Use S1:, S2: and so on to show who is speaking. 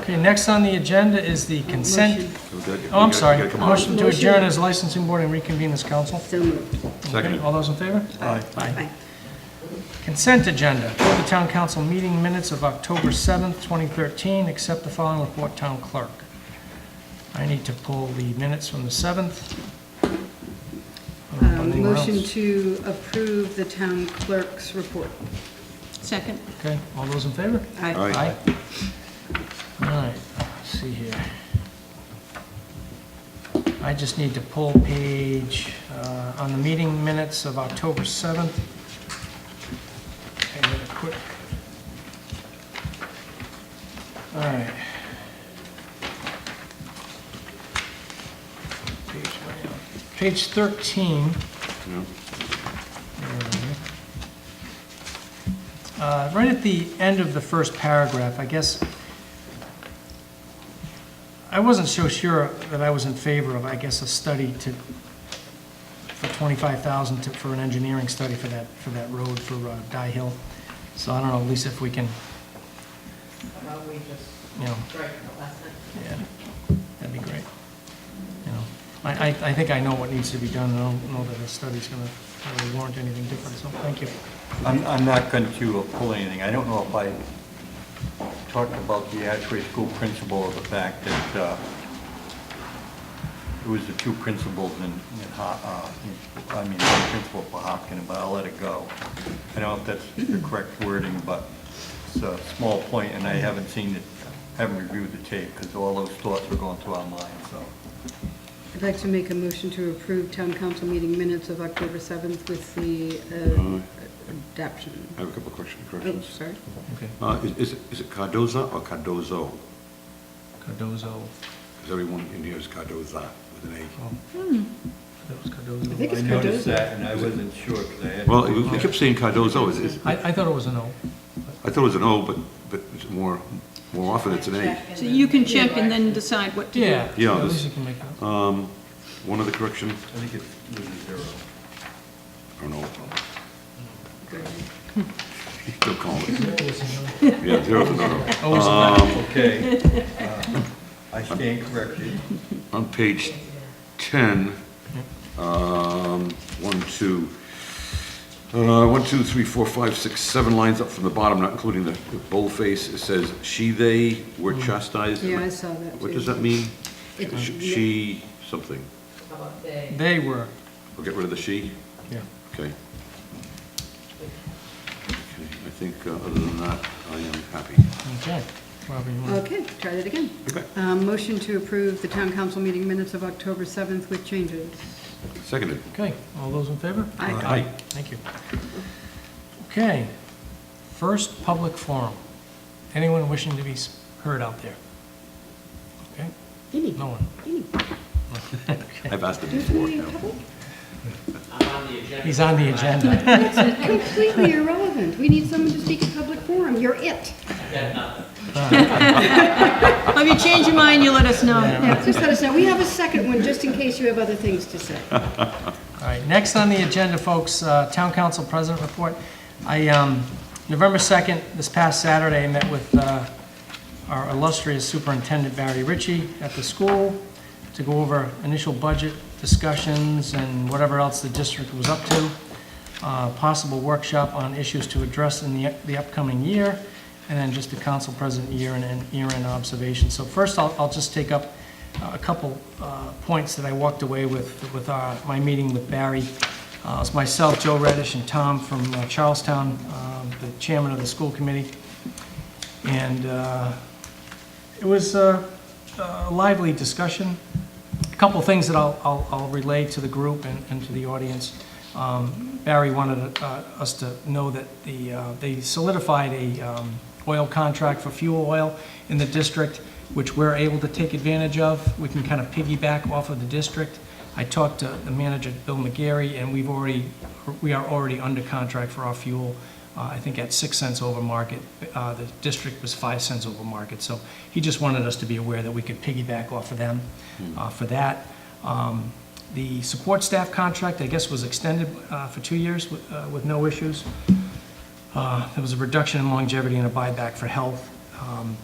S1: Okay, next on the agenda is the consent, oh, I'm sorry, motion to adjourn as licensing board and reconvene as council.
S2: So um, moved.
S1: Okay,
S3: Second.
S1: All those in favor?
S2: Aye.
S1: Consent agenda, approve the town council meeting minutes of October 7th, 2013, accept the following report, town clerk. I need to pull the minutes from the 7th. I don't know about
S2: Um,
S1: anyone
S2: Motion
S1: else.
S2: to approve the town clerk's report.
S4: Second.
S1: Okay, all those in favor?
S3: Aye.
S1: All right, let's see here. I just need to pull page, uh, on the meeting minutes of October 7th. Okay, really quick. All right. Page right up. Page 13. There we go. Uh, Right at the end of the first paragraph, I guess, I wasn't so sure that I was in favor of, I guess, a study to, for 25,000 to, for an engineering study for that, for that road for uh, Dye Hill. So I don't know, Lisa, if we can,
S5: Well, we just
S1: you know,
S5: strike the lesson.
S1: yeah, that'd be great. You know, I, I, I think I know what needs to be done, and I don't know that a study's gonna really warrant anything different, so thank you.
S6: I'm, I'm not going to pull anything. I don't know if I talked about the Ashway School principal or the fact that uh, it was the two principals in, in Ho- uh, in- I mean, one principal for Hopkins, but I'll let it go. I don't know if that's the correct wording, but it's a small point, and I haven't seen it, haven't reviewed the tape, because all those thoughts were going through our mind, so.
S2: I'd like to make a motion to approve town council meeting minutes of October 7th with the uh, adoption.
S3: I have a couple of question-
S2: Oh,
S3: corrections.
S2: sorry.
S1: Okay.
S3: Uh, is- Is it- is it Cardoza or Cardozo?
S1: Cardozo,
S3: Because everyone in here is Cardoza with an A.
S1: oh.
S2: Hmm.
S1: That was Cardozo.
S2: I think it's
S6: Oh, I noticed
S2: Cardozo.
S6: that, and I wasn't sure, because I had.
S3: Well, you you kept saying Cardozo. Is- is-
S1: I, I thought it was an O.
S3: I thought it was an O, but, but it's more, more often it's an A.
S5: Check in
S4: So
S5: the-
S4: you can check and then decide what to do.
S1: Yeah.
S3: Yeah,
S1: At
S3: this-
S1: least you can make that.
S3: Um, One other correction,
S6: I think it was a zero.
S3: I don't know,
S2: Good.
S3: they'll call it. Yeah, zero for no.
S1: Always a-
S6: Okay, uh, I stand corrected.
S3: On page 10, um, one, two, uh, one, two, three, four, five, six, seven lines up from the bottom, not including the the boldface, it says, "She, they were chastised."
S2: Yeah, I saw that,
S3: What
S2: too.
S3: does that mean?
S2: It-
S3: Sh- She, something.
S5: How about
S3: um,
S5: they?
S1: They were,
S3: We'll get rid of the she?
S1: yeah.
S3: Okay. Okay, I think, uh, other than that, I am happy.
S1: Okay. Robert, you want
S2: Okay, try that again.
S3: Okay.
S2: Um, Motion to approve the town council meeting minutes of October 7th with changes.
S3: Seconded.
S1: Okay, all those in favor?
S2: Aye.
S3: Aye.
S1: Thank you. Okay, first public forum. Anyone wishing to be s- heard out there? Okay,
S2: Any,
S1: no one?
S2: any.
S3: I've asked it before now.
S1: He's on the agenda.
S2: Completely irrelevant. We need someone to speak at public forum. You're it.
S4: If you change your mind, you let us know.
S2: Yeah, just let us know. We have a second one, just in case you have other things to say.
S1: All right, next on the agenda, folks, uh, Town Council President Report. I, um, November 2nd, this past Saturday, I met with uh, our illustrious Superintendent Barry Ritchie at the school to go over initial budget discussions and whatever else the district was up to, uh, possible workshop on issues to address in the the upcoming year, and then just the council president year-end and year-end observation. So first, I'll I'll just take up a couple uh, points that I walked away with, with our, my meeting with Barry. Uh, It's myself, Joe Reddish, and Tom from uh, Charlestown, um, the chairman of the school committee. And uh, it was a a lively discussion. A couple things that I'll- I'll I'll relay to the group and and to the audience. Um, Barry wanted uh, us to know that the, uh, they solidified a um, oil contract for fuel oil in the district, which we're able to take advantage of. We can kind of piggyback off of the district. I talked to the manager, Bill McGarry, and we've already, we are already under contract for our fuel, uh, I think at six cents over market. Uh, The district was five cents over market, so he just wanted us to be aware that we could piggyback off of them uh, for that. Um, The support staff contract, I guess, was extended uh, for two years with uh, with no issues. Uh, There was a reduction in longevity and a buyback for health. Um,